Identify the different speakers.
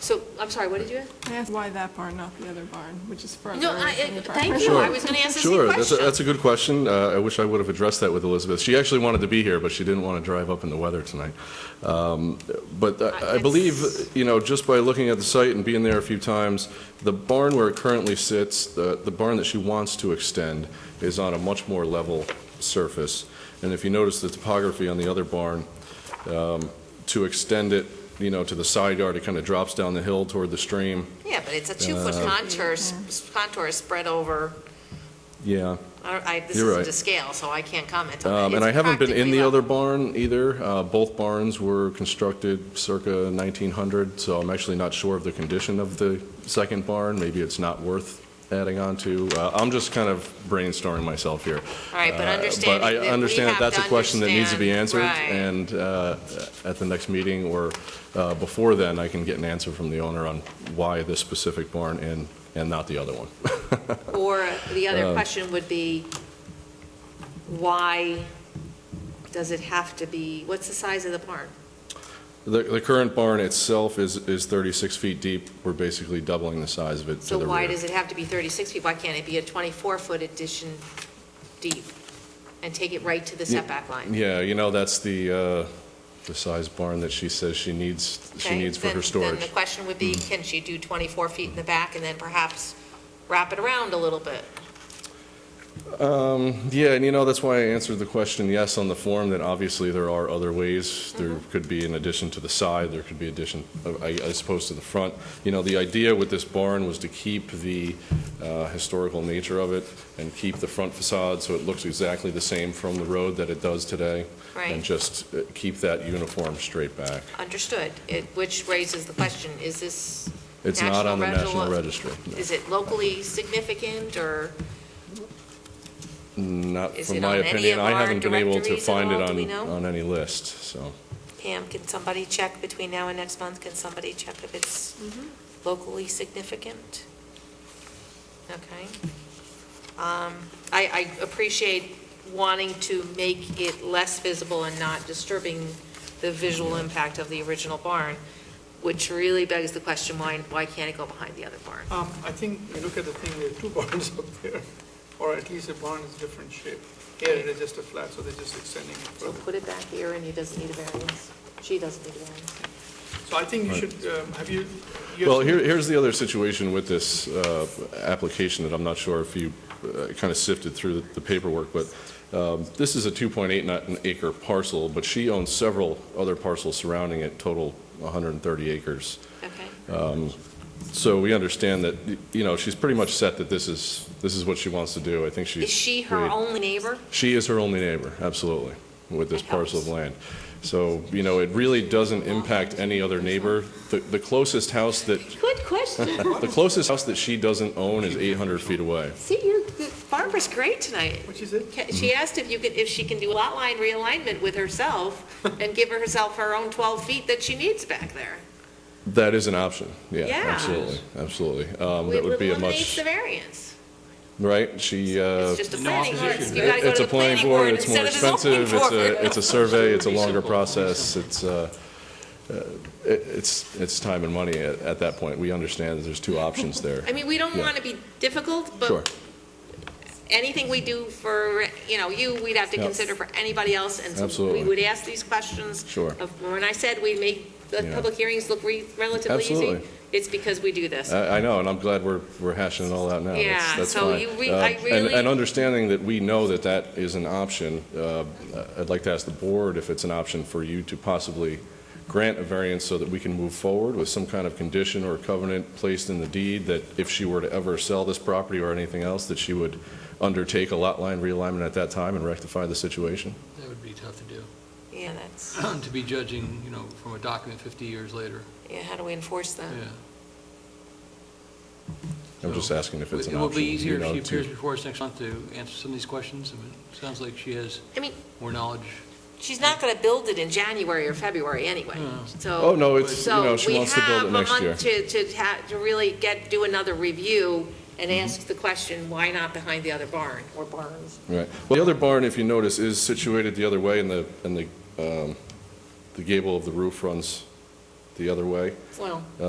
Speaker 1: So, I'm sorry, what did you ask?
Speaker 2: I asked why that barn, not the other barn, which is further.
Speaker 1: No,
Speaker 2: away
Speaker 1: I,
Speaker 2: from
Speaker 1: I-
Speaker 2: the
Speaker 1: thank
Speaker 2: property.
Speaker 1: you, I
Speaker 3: Sure.
Speaker 1: was going to ask the same
Speaker 3: Sure,
Speaker 1: question.
Speaker 3: that's, a- that's a good question. Uh, I wish I would have addressed that with Elizabeth. She actually wanted to be here, but she didn't want to drive up in the weather tonight. Um, But I- I
Speaker 1: it's-
Speaker 3: believe, you know, just by looking at the site and being there a few times, the barn where it currently sits, the the barn that she wants to extend, is on a much more level surface. And if you notice the topography on the other barn, um, to extend it, you know, to the side yard, it kind of drops down the hill toward the stream.
Speaker 4: Yeah, but it's a two-foot contour, s- contour spread over,
Speaker 3: Yeah.
Speaker 4: I, don't- I- this
Speaker 3: You're
Speaker 4: isn't
Speaker 3: right.
Speaker 4: to scale, so I can't comment on
Speaker 3: Um,
Speaker 4: it.
Speaker 3: And I
Speaker 4: It's
Speaker 3: haven't been in the
Speaker 4: practically
Speaker 3: other
Speaker 4: level.
Speaker 3: barn either. Uh, Both barns were constructed circa 1900, so I'm actually not sure of the condition of the second barn. Maybe it's not worth adding on to. Uh, I'm just kind of brainstorming myself here.
Speaker 4: All right, but
Speaker 3: Uh,
Speaker 4: understanding
Speaker 3: But I
Speaker 4: that we
Speaker 3: understand
Speaker 4: have
Speaker 3: that that's a
Speaker 4: to
Speaker 3: question that needs to be answered.
Speaker 4: understand- right.
Speaker 3: And uh, at the next meeting or uh, before then, I can get an answer from the owner on why this specific barn and, and not the other one.
Speaker 1: Or the
Speaker 3: uh,
Speaker 1: other question would be, why does it have to be, what's the size of the barn?
Speaker 3: The, the current barn itself is, is 36 feet deep. We're basically doubling the size of it to the
Speaker 4: So
Speaker 3: rear.
Speaker 4: why does it have to be 36 feet? Why can't it be a 24-foot addition deep and take it right to the
Speaker 3: Yeah.
Speaker 4: setback line?
Speaker 3: Yeah, you know, that's the, uh, the size barn that she says she needs, she
Speaker 4: Okay,
Speaker 3: needs for
Speaker 4: then- Then
Speaker 3: her
Speaker 4: the
Speaker 3: storage. Mm-hmm.
Speaker 4: question would be, can she do 24 feet in the back and then perhaps wrap it around a little bit?
Speaker 3: Um, yeah, and you know, that's why I answered the question yes on the form, that obviously there are other ways. There
Speaker 4: Mm-hmm.
Speaker 3: could be an addition to the side, there could be addition, uh, I, I suppose, to the front. You know, the idea with this barn was to keep the, uh, historical nature of it and keep the front facade so it looks exactly the same from the road that it does today.
Speaker 4: Right.
Speaker 3: And just uh, keep that uniform straight back.
Speaker 4: Understood, It- which raises the question, is this,
Speaker 3: It's not on the
Speaker 4: National
Speaker 3: National
Speaker 4: Register-
Speaker 3: Register.
Speaker 4: is it locally significant or?
Speaker 3: Not,
Speaker 4: Is
Speaker 3: from
Speaker 4: it
Speaker 3: my
Speaker 4: on any
Speaker 3: opinion,
Speaker 4: of
Speaker 3: I
Speaker 4: our
Speaker 3: haven't been able to
Speaker 4: directories at
Speaker 3: find it
Speaker 4: all? Do we
Speaker 3: on,
Speaker 4: know?
Speaker 3: on any list, so.
Speaker 4: Pam, can somebody check between now and next month, can somebody check if it's locally significant? Okay. Um, I, I appreciate wanting to make it less visible and not disturbing the visual impact of the original barn, which really begs the question, why, why can't it go behind the other barn?
Speaker 5: Um, I think, you look at the thing, there are two barns up there, or at least a barn is different shape. Here it is just a flat, so they're just extending it
Speaker 4: So
Speaker 5: further.
Speaker 4: put it back here, and he doesn't need a variance, she doesn't need a variance.
Speaker 5: So I think you should, um, have you? you have
Speaker 3: Well,
Speaker 5: seen-
Speaker 3: here, here's the other situation with this uh, application that I'm not sure if you kind of sifted through the paperwork, but um, this is a 2.8 acre parcel, but she owns several other parcels surrounding it, total 130 acres.
Speaker 4: Okay,
Speaker 3: So we understand that, y- you know, she's pretty much set that this is, this is what she wants to do. I think she's.
Speaker 4: is she her
Speaker 3: made-
Speaker 4: only neighbor?
Speaker 3: She is her only neighbor, absolutely, with this
Speaker 4: That
Speaker 3: parcel of
Speaker 4: helps.
Speaker 3: land. So, you know, it really doesn't impact any other neighbor. The the closest house that,
Speaker 1: Good question.
Speaker 3: the closest house that she doesn't own is 800 feet away.
Speaker 1: See, you're, Barbara's great tonight.
Speaker 5: Which is it?
Speaker 4: Ca- She asked if you could, if she can do lot line realignment with herself and give herself her own 12 feet that she needs back there.
Speaker 3: That is an option, yeah,
Speaker 4: Yeah.
Speaker 3: absolutely, absolutely. Um, That
Speaker 4: It
Speaker 3: would be a
Speaker 4: eliminates
Speaker 3: much,
Speaker 4: the variance.
Speaker 3: right? She, uh,
Speaker 4: It's just a planning board. You gotta go
Speaker 3: it's
Speaker 4: to
Speaker 3: a
Speaker 4: the planning board
Speaker 3: it's more
Speaker 4: instead of the zoning
Speaker 3: expensive, it's a,
Speaker 4: board.
Speaker 3: it's a survey, it's a longer process, it's, uh, uh, it- it's, it's time and money at at that point. We understand that there's two options there.
Speaker 4: I mean, we don't
Speaker 3: Yeah.
Speaker 4: want to be difficult,
Speaker 3: Sure.
Speaker 4: but anything we do for, you know, you, we'd have to
Speaker 3: Yep.
Speaker 4: consider for anybody else. And so we
Speaker 3: Absolutely.
Speaker 4: would ask these questions.
Speaker 3: Sure.
Speaker 4: of- When I said we make the
Speaker 3: Yeah.
Speaker 4: public hearings look re- relatively easy,
Speaker 3: Absolutely. Uh,
Speaker 4: it's because we do this.
Speaker 3: I, I know, and I'm glad we're, we're hashing it all out now. That's-
Speaker 4: Yeah,
Speaker 3: that's
Speaker 4: so
Speaker 3: fine.
Speaker 4: you re-
Speaker 3: Uh,
Speaker 4: I
Speaker 3: and-
Speaker 4: really-
Speaker 3: And understanding that we know that that is an option, uh, I'd like to ask the board if it's an option for you to possibly grant a variance so that we can move forward with some kind of condition or covenant placed in the deed that if she were to ever sell this property or anything else, that she would undertake a lot line realignment at that time and rectify the situation?
Speaker 6: That would be tough to do,
Speaker 4: Yeah, that's,
Speaker 6: to be judging, you know, from a document 50 years later,
Speaker 4: yeah, how do we enforce that?
Speaker 6: yeah.
Speaker 3: I'm just
Speaker 6: So,
Speaker 3: asking if it's an
Speaker 6: It will be
Speaker 3: option, you
Speaker 6: easier if
Speaker 3: know,
Speaker 6: she
Speaker 3: to-
Speaker 6: appears before us next month to answer some of these questions. I mean, It sounds like she has
Speaker 4: I mean,
Speaker 6: more knowledge.
Speaker 4: She's not going to build it in January or February anyway,
Speaker 6: No.
Speaker 4: so.
Speaker 3: Oh, no, it's, you know, she wants to build it next
Speaker 4: So we
Speaker 3: year.
Speaker 4: have a month to, to ha to really get, do another review and
Speaker 3: Mm-hmm.
Speaker 4: ask the question, why not behind the other barn or barns?
Speaker 3: Right. Well, the other barn, if you notice, is situated the other way, and the, and the, um, the gable of the roof runs the other way.
Speaker 4: Well.